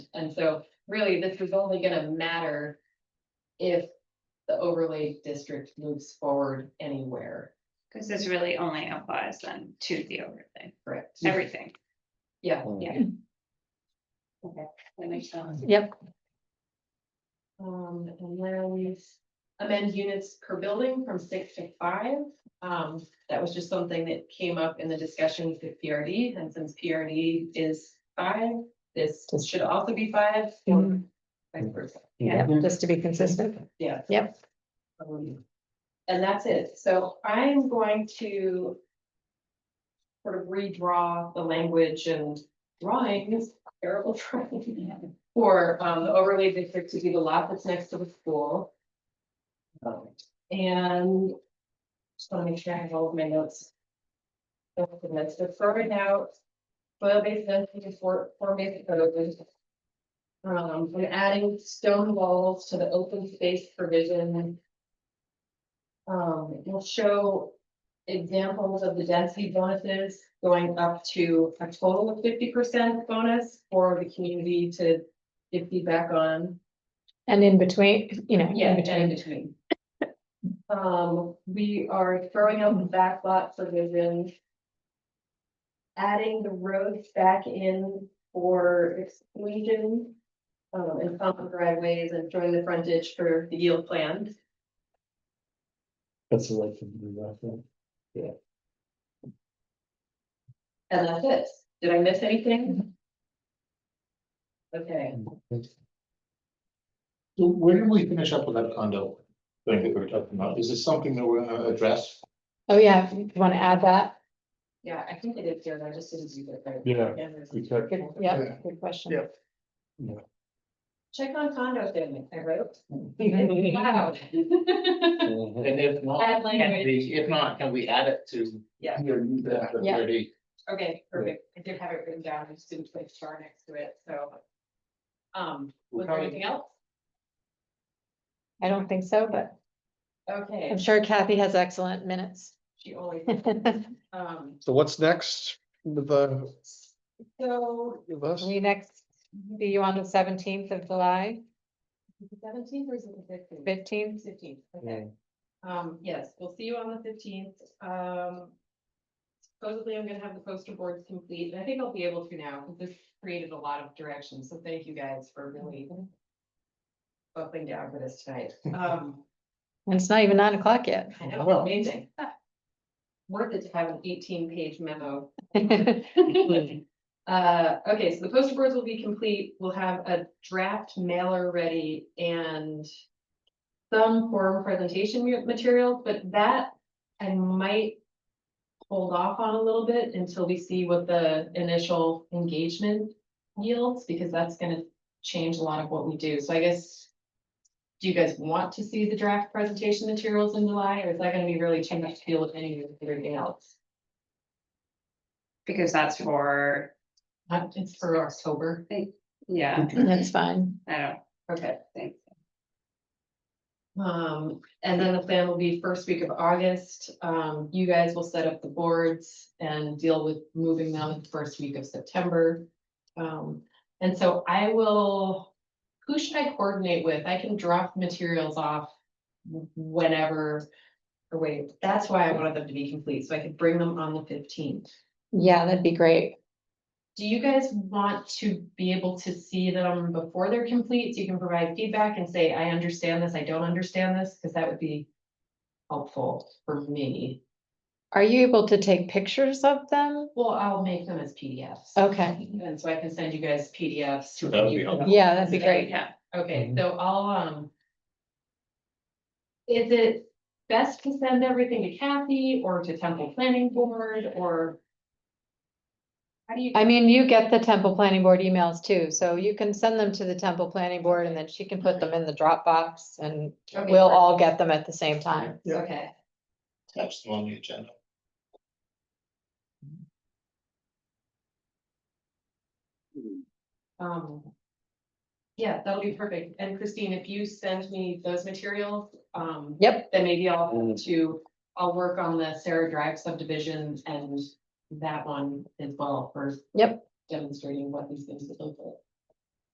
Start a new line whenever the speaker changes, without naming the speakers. And so really, this is only gonna matter if the overlay district moves forward anywhere,
Because this really only applies then to the overlay,
correct?
everything.
Yeah.
Um,
Yeah. Okay, that makes sense.
Yep,
Um, and then we amend units per building from six to five. Um, that was just something that came up in the discussions with PRD, and since PRD is five, this should also be five. or
Mhm.
vice versa.
yep, just to be consistent.
Yeah.
Yep.
Um, And that's it. So I'm going to sort of redraw the language and drawings, terrible drawing, for um, the overlay district to be the lot that's next to the school. Um, And just want to make sure I have all of my notes. Okay, That's the throwing out, soil-based density for, for basic purposes. Um, and adding stone walls to the open space provision. Um, we'll show examples of the density bonuses going up to a total of fifty percent bonus for the community to give feedback on.
And in between, you know,
And
in
in
between,
between. Um, we are throwing out the backlot provision. Adding the roads back in for exclusion. Um, and common driveways and showing the frontage for the yield plan.
That's what I can do that.
And that's it. Did I miss anything? Okay,
So where did we finish up with that condo thing that we were talking about? Is this something that we're gonna address?
oh yeah, if you want to add that,
yeah, I think I did, Jared, I just didn't do that. right.
Yeah,
Yeah.
we checked.
good, yeah,
Yeah.
good question.
Yep.
Check on condo family, I wrote.
And
Wow.
if
Add language.
if not, can we add it to?
Yeah.
Yeah.
Okay, perfect. I did have it written down. I just didn't place star next to it, so. Um, was there anything else?
I don't think so, but
Okay,
I'm sure Kathy has excellent minutes.
she always,
We
um,
So what's next with the?
so
with us?
next, be you on the seventeenth of July,
seventeen or is it the fifteenth?
fifteenth,
Fifteenth, okay. Um, yes, we'll see you on the fifteenth. Um. Supposedly I'm gonna have the poster boards complete, and I think I'll be able to now, because this created a lot of direction, so thank you guys for really. Buckling down for this tonight. Um.
and it's not even nine o'clock yet.
I know,
Wow.
amazing. Worth it to have an eighteen page memo. Uh, okay, so the poster boards will be complete. We'll have a draft mailer ready and. Some forum presentation ma- material, but that I might. Hold off on a little bit until we see what the initial engagement yields, because that's gonna change a lot of what we do. So I guess. Do you guys want to see the draft presentation materials in July, or is that gonna be really too much to deal with any of everything else?
Because that's for,
Uh, it's for October,
yeah,
That's fine.
I don't
okay.
think.
Um, and then the plan will be first week of August, um, you guys will set up the boards and deal with moving them the first week of September. Um, and so I will, who should I coordinate with? I can drop materials off whenever. Or wait, that's why I wanted them to be complete, so I could bring them on the fifteenth.
Yeah, that'd be great.
Do you guys want to be able to see them before they're complete? So you can provide feedback and say, I understand this, I don't understand this, because that would be helpful for me.
Are you able to take pictures of them?
Well, I'll make them as PDFs.
Okay,
And so I can send you guys PDFs. to
That would be
review.
helpful. Mm-hmm.
yeah, that'd be great.
Yeah,
Okay,
Mhm.
so I'll, um. Is it best to send everything to Kathy or to Temple Planning Board or? How do you?
I mean, you get the Temple Planning Board emails too, so you can send them to the Temple Planning Board and then she can put them in the Dropbox and
Okay,
we'll all get them at the same time.
Okay.
That's on the agenda.
Um. Yeah, that'll be perfect. And Christine, if you send me those materials, um.
Yep.
Then maybe I'll
Mm.
to, I'll work on the Sarah Drive subdivision and that one as well for.
Yep.
Demonstrating what these things look like.